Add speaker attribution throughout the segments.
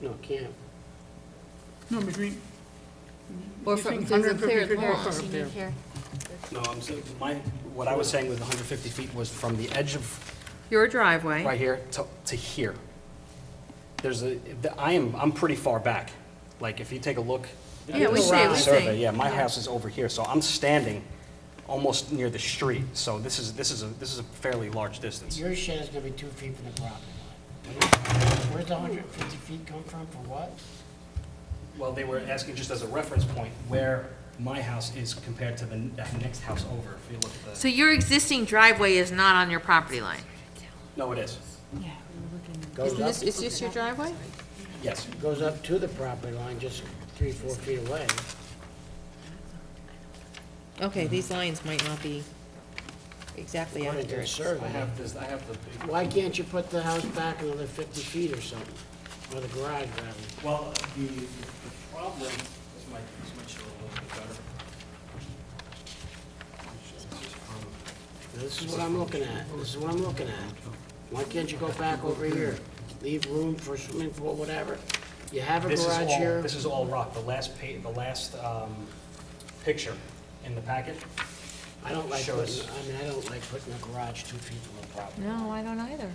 Speaker 1: No, camp.
Speaker 2: No, between,
Speaker 3: Or
Speaker 2: You
Speaker 3: from,
Speaker 2: think
Speaker 3: there's a
Speaker 2: 150
Speaker 3: cleared
Speaker 2: feet
Speaker 3: lot,
Speaker 2: walk
Speaker 3: you
Speaker 2: up
Speaker 3: need
Speaker 2: there.
Speaker 3: here.
Speaker 1: No, I'm saying, my, what I was saying with 150 feet was from the edge of,
Speaker 3: Your driveway.
Speaker 1: right here, to, to here. There's a, the- I am, I'm pretty far back. Like, if you take a look. at
Speaker 3: Yeah, we
Speaker 1: the
Speaker 3: see, we
Speaker 1: Survey,
Speaker 3: see.
Speaker 1: yeah, my house is over here, so I'm standing almost near the street. So this is, this is, a this is a fairly large distance.
Speaker 4: Your shed is gonna be two feet from the property line. Where's the hundred and fifty feet come from, for what?
Speaker 1: Well, they were asking just as a reference point where my house is compared to the n- that next house over, if you look at the.
Speaker 3: So your existing driveway is not on your property line?
Speaker 1: No, it is,
Speaker 4: Goes up,
Speaker 3: is this your driveway?
Speaker 1: yes.
Speaker 4: goes up to the property line, just three, four feet away.
Speaker 3: Okay, these lines might not be exactly
Speaker 4: What is it,
Speaker 3: accurate.
Speaker 1: I
Speaker 4: survey?
Speaker 1: have this, I have the big.
Speaker 4: Why can't you put the house back another fifty feet or something? Or the garage, rather?
Speaker 1: Well, uh, the, the problem, this might, this might show a little bit better.
Speaker 4: This is what I'm looking at, this is what I'm looking at. Why can't you go back over here? Leave room for swimming pool, whatever. You have a
Speaker 1: This is
Speaker 4: garage
Speaker 1: all,
Speaker 4: here.
Speaker 1: this is all rock, the last pa, the last, um, picture in the packet.
Speaker 4: I don't like
Speaker 1: shows-
Speaker 4: putting, I mean, I don't like putting a garage two feet from the property.
Speaker 3: No, I don't either.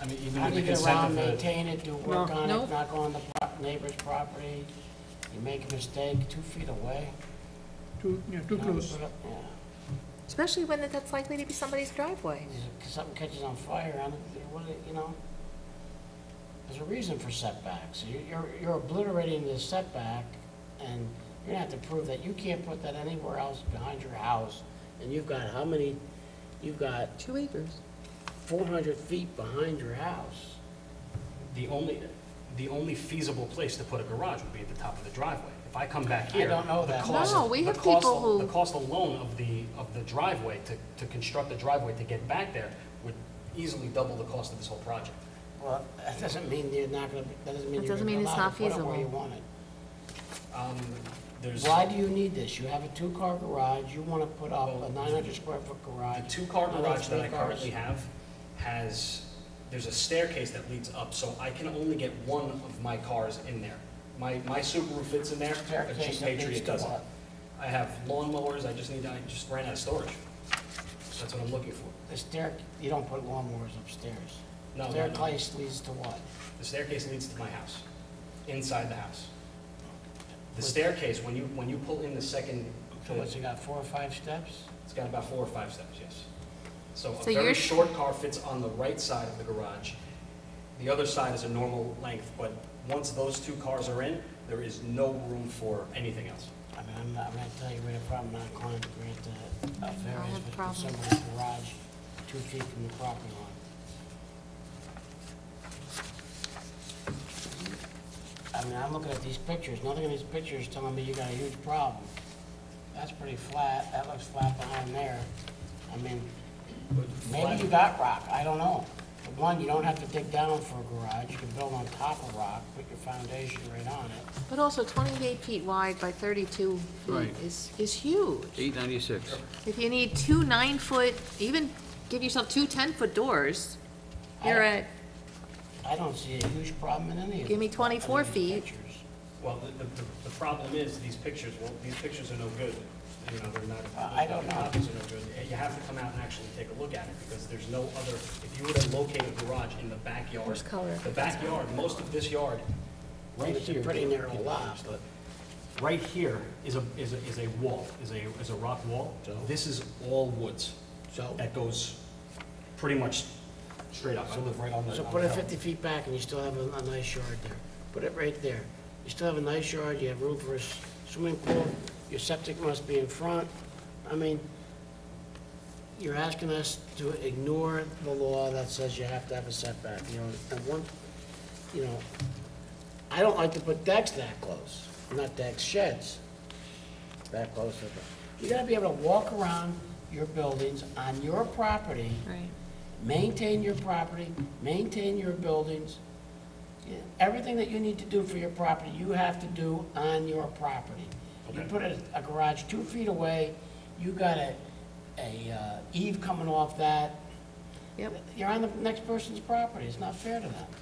Speaker 1: I mean, even
Speaker 4: How
Speaker 1: with
Speaker 4: do
Speaker 1: the
Speaker 4: you get around,
Speaker 1: consent of the.
Speaker 4: maintain it, do work on
Speaker 3: No.
Speaker 4: it, not go on the pro- neighbor's property? You make a mistake, two feet away?
Speaker 2: too, yeah, too close.
Speaker 4: Yeah.
Speaker 3: Especially when that's likely to be somebody's driveway.
Speaker 4: If Something catches on fire, on it, what, do you- you know? There's a reason for setbacks. You- You're, you're obliterating the setback, and you're gonna have to prove that you can't put that anywhere else behind your house. And you've got how many, you've got
Speaker 3: Two acres.
Speaker 4: four hundred feet behind your house.
Speaker 1: The only, the only feasible place to put a garage would be at the top of the driveway. If I come back
Speaker 4: I
Speaker 1: here.
Speaker 4: don't know
Speaker 1: the
Speaker 4: that.
Speaker 1: cost-
Speaker 3: No, we
Speaker 1: the
Speaker 3: have
Speaker 1: cost
Speaker 3: people
Speaker 1: al-
Speaker 3: who-
Speaker 1: The cost alone of the, of the driveway, to, to construct the driveway to get back there, would easily double the cost of this whole project.
Speaker 4: Well, that doesn't mean you're not gonna, that doesn't mean
Speaker 3: That
Speaker 4: you're
Speaker 3: doesn't
Speaker 4: gonna
Speaker 3: mean it's
Speaker 4: allow it
Speaker 3: not
Speaker 4: to put it where
Speaker 3: feasible.
Speaker 4: you want it.
Speaker 1: Um, there's.
Speaker 4: Why do you need this? You have a two-car garage, you want to put up
Speaker 1: Well,
Speaker 4: a 900-square-foot
Speaker 1: The
Speaker 4: garage.
Speaker 1: two-car
Speaker 4: Another
Speaker 1: Uh, garage that
Speaker 4: three
Speaker 1: I
Speaker 4: cars.
Speaker 1: currently have has, there's a staircase that leads up, so I can only get one of my cars in there. My, my Subaru fits in there, a
Speaker 4: Staircase
Speaker 1: Jeep
Speaker 4: that leads
Speaker 1: Patriot
Speaker 4: to
Speaker 1: doesn't.
Speaker 4: what?
Speaker 1: I have lawnmowers, I just need, I just ran out of storage. That's what I'm looking for.
Speaker 4: The stair, you don't put lawnmowers upstairs.
Speaker 1: No, no, no.
Speaker 4: Staircase leads to what?
Speaker 1: The staircase leads to my house, inside the house. The staircase, when you, when you pull in the second,
Speaker 4: So what's it got, four or five steps?
Speaker 1: It's got about four or five steps, yes. So a
Speaker 3: So
Speaker 1: very
Speaker 3: you're-
Speaker 1: short car fits on the right side of the garage. The other side is a normal length, but once those two cars are in, there is no room for anything else.
Speaker 4: I mean, I'm not, I'm gonna tell you right up front, I'm not inclined to grant the uh,
Speaker 3: have
Speaker 4: variance
Speaker 3: a
Speaker 4: with
Speaker 3: problem.
Speaker 4: somebody's garage two feet from the property line. I mean, I'm looking at these pictures, nothing in these pictures is telling me you got a huge problem. That's pretty flat, that looks flat behind there. I mean, maybe you got rock, I don't know. But one, you don't have to dig down for a garage, you can build on top of rock, put your foundation right on it.
Speaker 3: But also 28 feet wide by 32 feet
Speaker 5: Right.
Speaker 3: is, is huge.
Speaker 5: Eight ninety-six.
Speaker 3: If you need two nine-foot, even give yourself two 10-foot doors, you're
Speaker 4: I-
Speaker 3: at,
Speaker 4: I don't see a huge problem in any of
Speaker 3: Give me
Speaker 4: the-
Speaker 3: 24
Speaker 4: any of the
Speaker 3: feet.
Speaker 4: pictures.
Speaker 1: Well, the, the, the problem is, these pictures, well, these pictures are no good. You know, they're not.
Speaker 4: I- I don't
Speaker 1: the
Speaker 4: know.
Speaker 1: Copies are no good. You have to come out and actually take a look at it, because there's no other, if you were to locate a garage in the backyard.
Speaker 3: There's color.
Speaker 1: The backyard, most of this yard, right
Speaker 4: It's a
Speaker 1: here.
Speaker 4: pretty narrow lot, but-
Speaker 1: right here is a, is a, is a wall, is a, is a rock wall. This is all woods.
Speaker 4: So-
Speaker 1: That goes pretty much straight up. I live right on the.
Speaker 4: So
Speaker 1: on
Speaker 4: put
Speaker 1: the
Speaker 4: it
Speaker 1: hill.
Speaker 4: 50 feet back and you still have a a nice yard there. Put it right there. You still have a nice yard, you have room for a s- swimming pool, your septic must be in front. I mean, you're asking us to ignore the law that says you have to have a setback, you know, and one, you know, I don't like to put decks that close, not decks, sheds that close to the, you gotta be able to walk around your buildings on your property
Speaker 3: right,
Speaker 4: maintain your property, maintain your buildings. Yeah, Everything that you need to do for your property, you have to do on your property. You
Speaker 1: Okay.
Speaker 4: put a, a garage two feet away, you got a, a uh, eave coming off that,
Speaker 3: yep.
Speaker 4: you're on the next person's property, it's not fair to them.